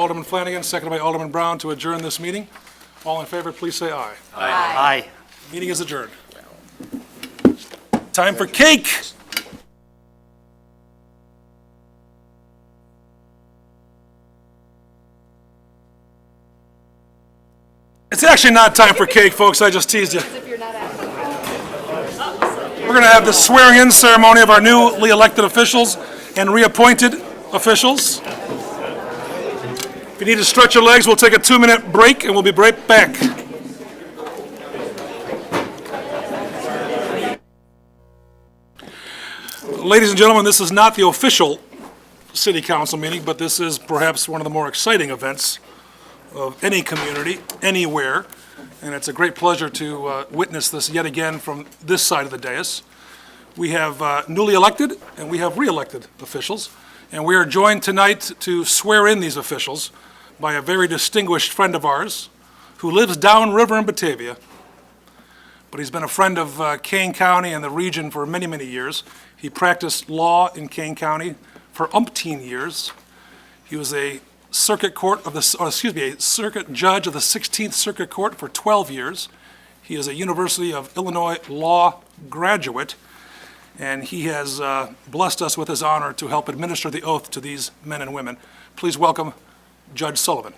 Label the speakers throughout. Speaker 1: Alderman Flanagan, seconded by Alderman Brown to adjourn this meeting. All in favor, please say aye.
Speaker 2: Aye.
Speaker 1: Meeting is adjourned. Time for cake! It's actually not time for cake, folks, I just teased you. We're going to have the swearing-in ceremony of our newly elected officials and reappointed officials. If you need to stretch your legs, we'll take a two-minute break, and we'll be right back. Ladies and gentlemen, this is not the official city council meeting, but this is perhaps one of the more exciting events of any community, anywhere, and it's a great pleasure to uh, witness this yet again from this side of the dais. We have uh, newly elected and we have re-elected officials, and we are joined tonight to swear in these officials by a very distinguished friend of ours who lives downriver in Batavia, but he's been a friend of uh, Kane County and the region for many, many years. He practiced law in Kane County for umpteen years. He was a circuit court of the, or excuse me, a circuit judge of the 16th Circuit Court for 12 years. He is a University of Illinois law graduate, and he has uh, blessed us with his honor to help administer the oath to these men and women. Please welcome Judge Sullivan.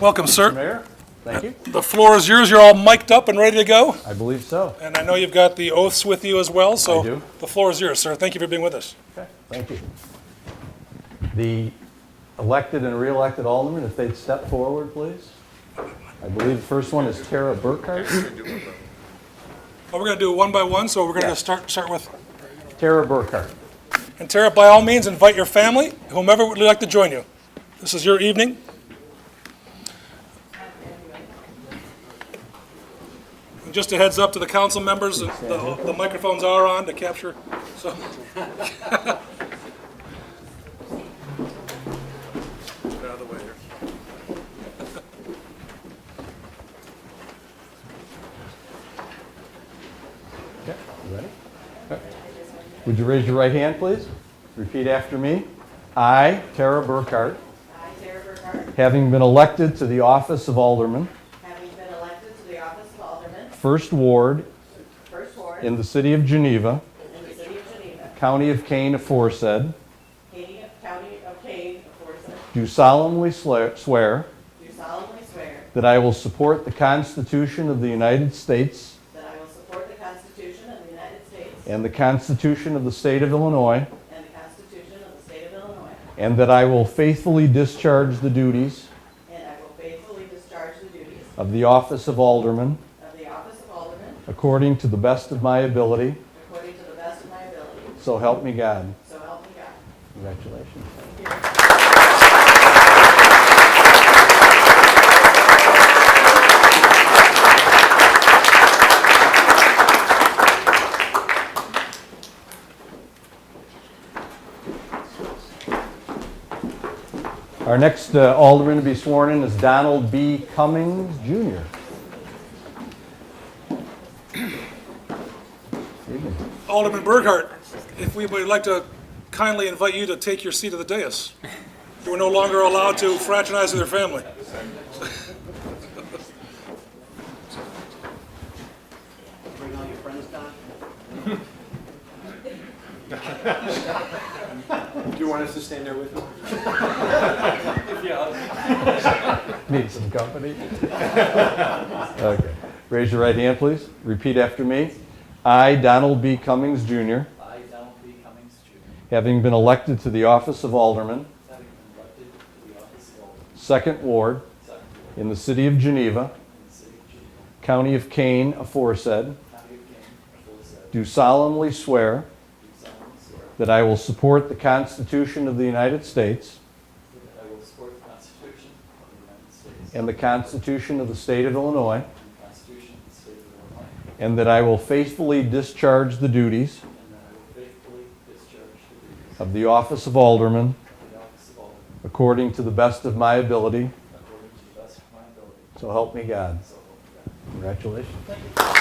Speaker 1: Welcome, sir.
Speaker 3: Mayor, thank you.
Speaker 1: The floor is yours. You're all mic'd up and ready to go.
Speaker 3: I believe so.
Speaker 1: And I know you've got the oaths with you as well, so.
Speaker 3: I do.
Speaker 1: The floor is yours, sir. Thank you for being with us.
Speaker 3: Okay, thank you. The elected and re-elected aldermen, if they'd step forward, please. I believe the first one is Tara Burkhart.
Speaker 1: Well, we're going to do it one by one, so we're going
Speaker 3: Yeah.
Speaker 1: to start, start with,
Speaker 3: Tara Burkhart.
Speaker 1: and Tara, by all means, invite your family, whomever would like to join you. This is your evening. And Just a heads up to the council members, the the microphones are on to capture, so. Get out of the way here.
Speaker 3: Okay, you ready? Okay. Would you raise your right hand, please? Repeat after me. I, Tara Burkhart,
Speaker 4: I, Sarah Burkhart,
Speaker 3: having been elected to the office of alderman,
Speaker 4: having been elected to the office of Alderman,
Speaker 3: First Ward,
Speaker 4: First Ward, in
Speaker 3: in the city of Geneva,
Speaker 4: the city of Geneva,
Speaker 3: county of Kane aforesaid,
Speaker 4: County of- County of Kane, aforesaid,
Speaker 3: do solemnly sla- swear
Speaker 4: do solemnly swear
Speaker 3: That I will support the Constitution of the United States
Speaker 4: that I will support the Constitution of the United States
Speaker 3: and the Constitution of the State of Illinois,
Speaker 4: and the Constitution of the State of Illinois,
Speaker 3: and that I will faithfully discharge the duties
Speaker 4: and I will faithfully discharge the duties
Speaker 3: of the office of Alderman
Speaker 4: of the office of Alderman
Speaker 3: according to the best of my ability.
Speaker 4: according to the best of my ability,
Speaker 3: So help me God.
Speaker 4: so help me God.
Speaker 3: Congratulations. Our next uh, alderman to be sworn in is Donald B. Cummings Jr. Evening.
Speaker 1: Alderman Burghardt, if we would like to kindly invite you to take your seat at the dais. You are no longer allowed to fraternize with your family.
Speaker 5: Bring all your friends down. Do you want us to stand there with you?
Speaker 3: Need some company? Okay. Raise your right hand, please. Repeat after me. I, Donald B. Cummings Jr.,
Speaker 6: I, Donald B. Cummings, Jr.,
Speaker 3: having been elected to the office of Alderman,
Speaker 6: having been elected to the office of Alderman,
Speaker 3: Second Ward,
Speaker 6: second ward
Speaker 3: in the city of Geneva,
Speaker 6: in the city of Geneva,
Speaker 3: county of Kane, aforesaid,
Speaker 6: county of Kane, aforesaid,
Speaker 3: do solemnly swear
Speaker 6: do solemnly swear
Speaker 3: that I will support the Constitution of the United States
Speaker 6: that I will support the Constitution of the United States
Speaker 3: and the Constitution of the state of Illinois,
Speaker 6: and the Constitution of the State of Illinois,
Speaker 3: and that I will faithfully discharge the duties
Speaker 6: and that I will faithfully discharge the duties
Speaker 3: of the office of Alderman
Speaker 6: of the office of Alderman
Speaker 3: according to the best of my ability.
Speaker 6: according to the best of my ability,
Speaker 3: So help me God.
Speaker 6: so help me God.
Speaker 3: Congratulations.